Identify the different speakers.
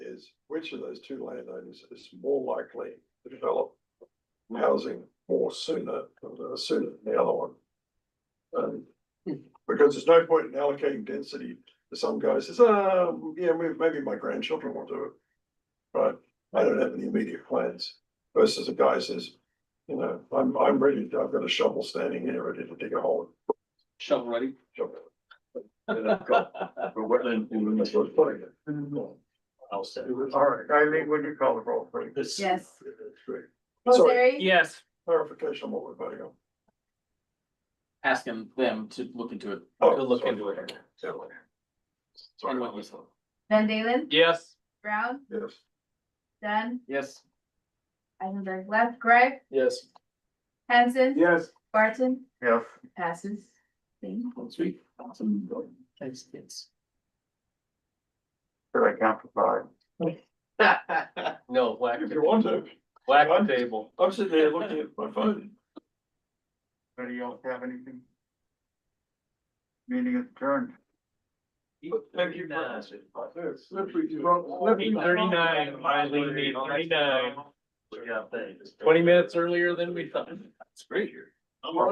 Speaker 1: which of those two landowners is more likely to develop housing more sooner, uh, sooner than the other one. Um, because there's no point in allocating density to some guy who says, ah, yeah, may- maybe my grandchildren will do it. But I don't have any immediate plans versus a guy who says, you know, I'm, I'm ready, to- I've got a shovel standing here, ready to dig a hole.
Speaker 2: shovel ready.
Speaker 1: Shovel. And I've got a wetland in the middle of putting it.
Speaker 3: I'll say.
Speaker 1: All right, Eileen, would you call the roll, please?
Speaker 3: This-
Speaker 4: Yes.
Speaker 1: Great. Sorry,
Speaker 4: Roseary?
Speaker 2: Yes.
Speaker 1: clarification on what we're voting on.
Speaker 2: Asking them to look into it.
Speaker 1: Oh,
Speaker 2: To look
Speaker 1: sorry.
Speaker 2: into it.
Speaker 1: Yeah.
Speaker 2: And
Speaker 1: Sorry,
Speaker 2: what you-
Speaker 4: Van Dalen?
Speaker 2: Yes.
Speaker 4: Brown?
Speaker 1: yes,
Speaker 4: Dunn?
Speaker 2: Yes.
Speaker 4: Eisenberg left, Greg?
Speaker 2: Yes.
Speaker 4: Hanson?
Speaker 1: Yes.
Speaker 4: Barton?
Speaker 1: yes.
Speaker 4: Passes. Thank you.
Speaker 2: Sweet. Awesome. Thanks, kids.
Speaker 1: Could I count for
Speaker 3: No, whack,
Speaker 1: five? If you want to,
Speaker 3: whack the table.
Speaker 1: I'm sitting there looking at my phone.
Speaker 5: Anybody else have anything? Meeting is adjourned.
Speaker 1: Thank you.
Speaker 3: Eight
Speaker 1: Thirty-nine,
Speaker 3: finally, eight thirty-nine.
Speaker 1: Yeah, thanks.
Speaker 3: Twenty minutes earlier than we thought.
Speaker 2: It's great here.
Speaker 1: I'm all